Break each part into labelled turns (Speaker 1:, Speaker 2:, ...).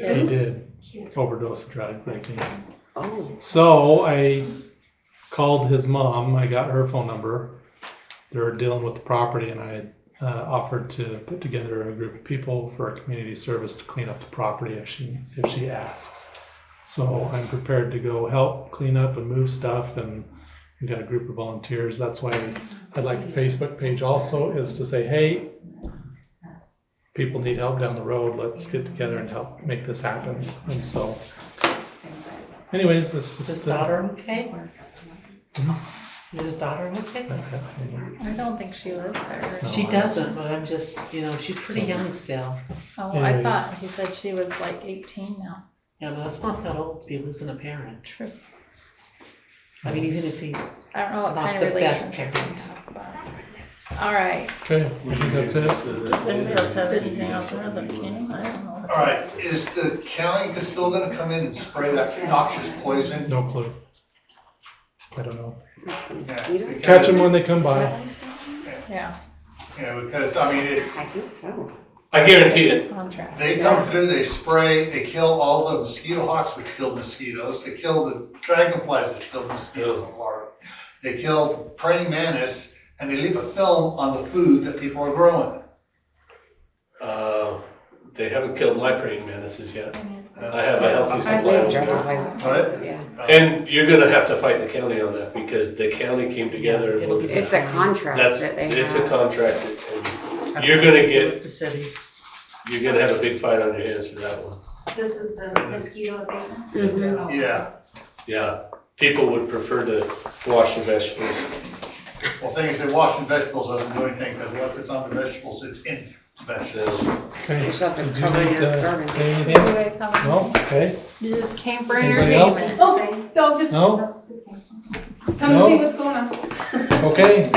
Speaker 1: They
Speaker 2: Hmm?
Speaker 1: did
Speaker 2: Cute.
Speaker 1: overdose of dry thinking.
Speaker 3: Oh,
Speaker 1: So I called his mom. I got her phone number. They're dealing with the property, and I uh, offered to put together a group of people for a community service to clean up the property if she if she asks. So I'm prepared to go help clean up and move stuff, and we got a group of volunteers. That's why I'd like the Facebook page also is to say, hey, people need help down the road. Let's get together and help make this happen. And so, anyways, this
Speaker 4: Is
Speaker 1: is
Speaker 4: his
Speaker 1: the-
Speaker 4: daughter okay?
Speaker 1: Mhm.
Speaker 4: Is his daughter okay?
Speaker 5: I don't think she lives there.
Speaker 1: No,
Speaker 4: She
Speaker 1: I-
Speaker 4: doesn't, but I'm just, you know, she's pretty young still.
Speaker 5: Oh, I thought he said she was like eighteen now.
Speaker 4: Yeah, but it's not that old to be losing a parent.
Speaker 5: True.
Speaker 4: I mean, even if he's
Speaker 5: I don't know what
Speaker 4: not
Speaker 5: kind
Speaker 4: the
Speaker 5: of
Speaker 4: best
Speaker 5: relationship.
Speaker 4: parent.
Speaker 5: All right.
Speaker 1: Okay, I think that's it.
Speaker 5: All
Speaker 6: All right, is the county still gonna come in and spray that noxious poison?
Speaker 1: No clue. I don't know.
Speaker 3: mosquito?
Speaker 1: Catch them when they come by.
Speaker 5: Yeah,
Speaker 6: Yeah, because, I mean, it's,
Speaker 3: I think so.
Speaker 6: I guarantee it.
Speaker 5: contract.
Speaker 6: They come through, they spray, they kill all the mosquito hawks, which kill mosquitoes, they kill the dragonflies, which kill mosquitoes and larvae. They kill praying mantis, and they leave a film on the food that people are growing.
Speaker 7: Uh, They haven't killed my praying mantises yet. I have a healthy
Speaker 6: Uh,
Speaker 7: supply. of them.
Speaker 6: What?
Speaker 3: Yeah.
Speaker 7: And you're gonna have to fight the county on that because the county came together.
Speaker 4: Yeah, it'll be-
Speaker 7: with-
Speaker 3: It's a contract
Speaker 7: That's,
Speaker 3: that they
Speaker 7: it's a
Speaker 3: have.
Speaker 7: contract and You're gonna get-
Speaker 4: The city.
Speaker 7: you're gonna have a big fight on your hands for that one.
Speaker 2: This is the mosquito abatement?
Speaker 3: Mhm.
Speaker 2: Oh.
Speaker 6: Yeah,
Speaker 7: Yeah, people would prefer to wash their vegetables.
Speaker 6: well, thing is, they washing vegetables doesn't do anything, because once it's on the vegetables, it's in vegetables.
Speaker 7: So,
Speaker 1: Okay.
Speaker 3: There's something
Speaker 1: Did you
Speaker 3: covered
Speaker 1: need
Speaker 3: in your
Speaker 1: to
Speaker 3: garbage.
Speaker 1: say
Speaker 5: You
Speaker 1: anything?
Speaker 5: guys have-
Speaker 1: No? Okay.
Speaker 5: You just came for
Speaker 1: Anybody else?
Speaker 5: entertainment.
Speaker 2: Oh, no, just,
Speaker 1: No?
Speaker 2: no, just kidding. Come see
Speaker 1: No?
Speaker 2: what's going on.
Speaker 1: Okay.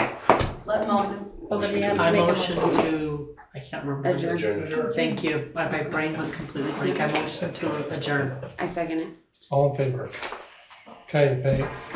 Speaker 2: Let Malden.
Speaker 5: Somebody has
Speaker 4: I
Speaker 5: to make a
Speaker 4: motion
Speaker 5: motion.
Speaker 4: to, I can't remember. the-
Speaker 7: Adjourn.
Speaker 4: Thank you. My, my brain went completely blank. I motion to adjourn.
Speaker 3: I second it.
Speaker 1: All in favor? Okay, thanks.